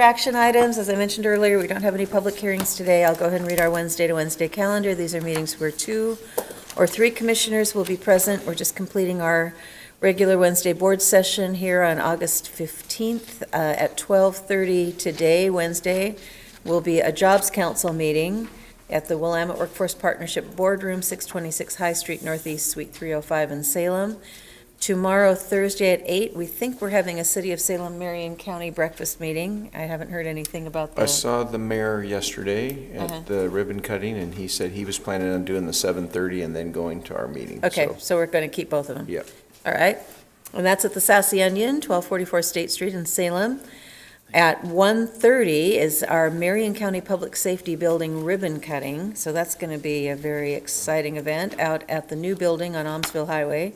Action items, as I mentioned earlier, we don't have any public hearings today. I'll go ahead and read our Wednesday to Wednesday calendar. These are meetings where two or three commissioners will be present. We're just completing our regular Wednesday board session here on August 15th uh, at 12:30 today, Wednesday, will be a Jobs Council meeting at the Willamette Workforce Partnership Boardroom, 626 High Street Northeast, Suite 305 in Salem. Tomorrow, Thursday at eight, we think we're having a City of Salem, Marion County breakfast meeting. I haven't heard anything about I the, saw the mayor yesterday Uh-huh. at the ribbon cutting, and he said he was planning on doing the 7:30 and then going to our meeting. okay, so- so we're going to keep both of them. Yep. All right. And that's at the Sassy Onion, 1244 State Street in Salem. At 1:30 is our Marion County Public Safety Building ribbon cutting, so that's going to be a very exciting event out at the new building on Almsville Highway,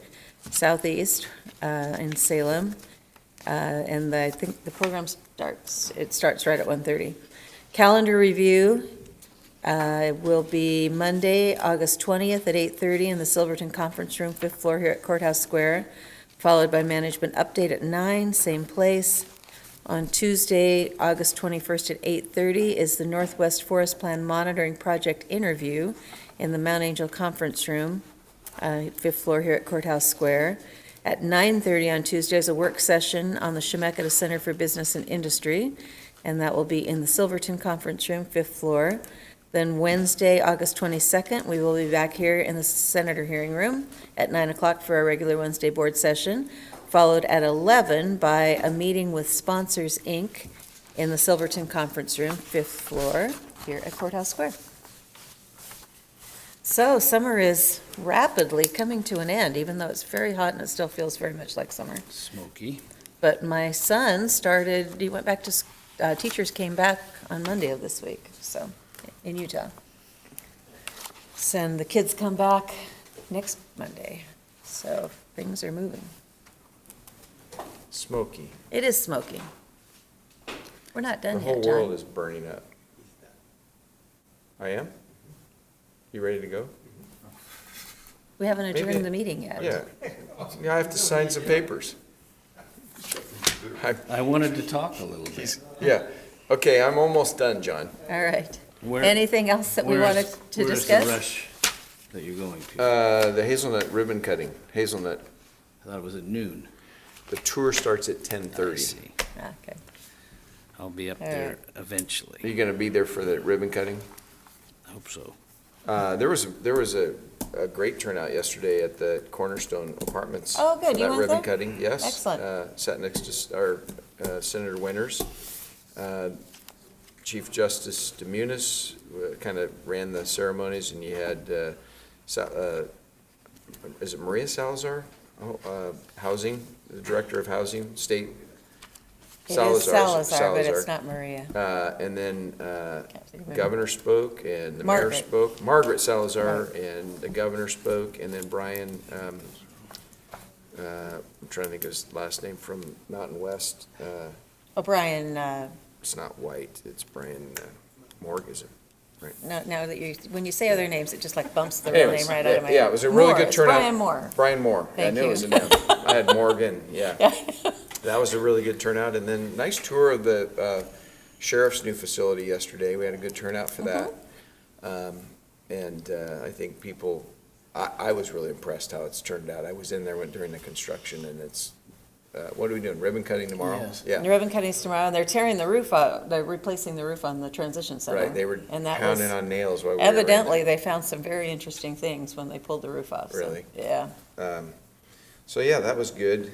southeast uh, in Salem. Uh, And I think the program starts, it starts right at 1:30. Calendar review uh, will be Monday, August 20th at 8:30 in the Silverton Conference Room, fifth floor here at Courthouse Square, followed by management update at 9, same place. On Tuesday, August 21st at 8:30 is the Northwest Forest Plan Monitoring Project interview in the Mount Angel Conference Room, uh, fifth floor here at Courthouse Square. At 9:30 on Tuesday is a work session on the Chemeketa Center for Business and Industry, and that will be in the Silverton Conference Room, fifth floor. Then Wednesday, August 22nd, we will be back here in the Senator Hearing Room at 9 o'clock for our regular Wednesday board session, followed at 11 by a meeting with Sponsors, Inc. in the Silverton Conference Room, fifth floor, here at Courthouse Square. So summer is rapidly coming to an end, even though it's very hot and it still feels very much like summer. Smoky. But my son started, he went back to, s- uh, teachers came back on Monday of this week, so, in Utah. So, And the kids come back next Monday, so things are moving. Smoky. It is smoking. We're not The done whole yet, world John. is burning up. I am? You ready to go? We haven't Maybe- adjourned the meeting yet. Yeah. Yeah, I have to sign some papers. I- I wanted to talk a little bit. he's- Yeah. Okay, I'm almost done, John. All right. Where- Anything else that we where is- wanted to Where is discuss? the rush that you're going to? Uh, The hazelnut ribbon cutting, hazelnut, I thought it was at noon. the tour starts at I 10:30. see. Ah, Okay. I'll be up All there eventually. Are you going to be there for the ribbon cutting? I hope so. Uh, There was, there was a, a great turnout yesterday at the Cornerstone Apartments. Oh, good. for You that went ribbon there? cutting, yes. Excellent. Uh, Sat next to s- our uh, Senator Winters. Uh, Chief Justice Demunis kind of ran the ceremonies, and you had, uh, Sa- uh, is it Maria Salazar? Oh, uh, Housing, the Director of Housing, State. It is Salazar, but it's not Maria. Uh, And then uh, Can't remember. governor spoke, and the mayor Margaret. spoke. Margaret Salazar, and the governor spoke, and then Brian, um, uh, I'm trying to think of his last name, from Mountain West. uh, O'Brien, uh, It's not White, it's Brian uh, Morg, is it? No, now that you, when you say other names, it just like bumps the real Anyways, name right out of yeah, my. yeah, it was a really Moore, good it's turnout. Brian Moore. Brian Moore. I Thank knew it you. was an M. I had Morgan, yeah. That was a really good turnout, and then nice tour of the uh, sheriff's new facility yesterday. We had a good turnout for that. Mm-hmm. Um, And uh, I think people, I, I was really impressed how it's turned out. I was in there when- during the construction, and it's, uh, what are we doing, ribbon cutting tomorrow? Yes. And Yeah, the ribbon cutting's tomorrow, and they're tearing the roof out, they're replacing the roof on the transition center. right, they were And that was pounding on nails while we were in there. Evidently, they found some very interesting things when they pulled the roof off. so- Really? Yeah. Um, So, yeah, that was good.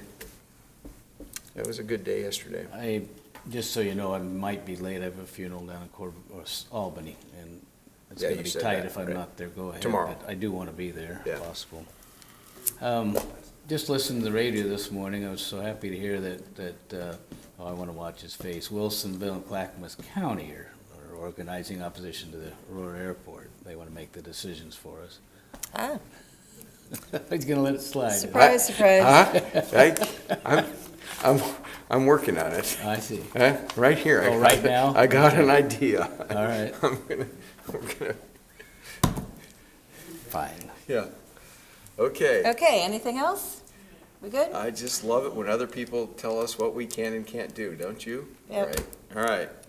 That was a good day yesterday. I, just so you know, I might be late. I have a funeral down in Corv, or S- Albany, and it's Yeah, gonna you be said tight that, if I'm right. not there. Go ahead. Tomorrow. but I do wanna be there, Yeah. if possible. Um, just listened to the radio this morning. I was so happy to hear that, that, uh, oh, I wanna watch his face. Wilsonville and Clackamas County are, are organizing opposition to the Aurora Airport. They wanna make the decisions for us. Ah, He's gonna let it slide. surprise, surprise. Huh? I, I'm, I'm, I'm working on it. I see. Huh? Right here. I Oh, got- right now? I got an idea. All right, I'm gonna, I'm gonna, fine. yeah. Okay. Okay, anything else? We good? Uh, I just love it when other people tell us what we can and can't do, don't you? Yep. Right. All right.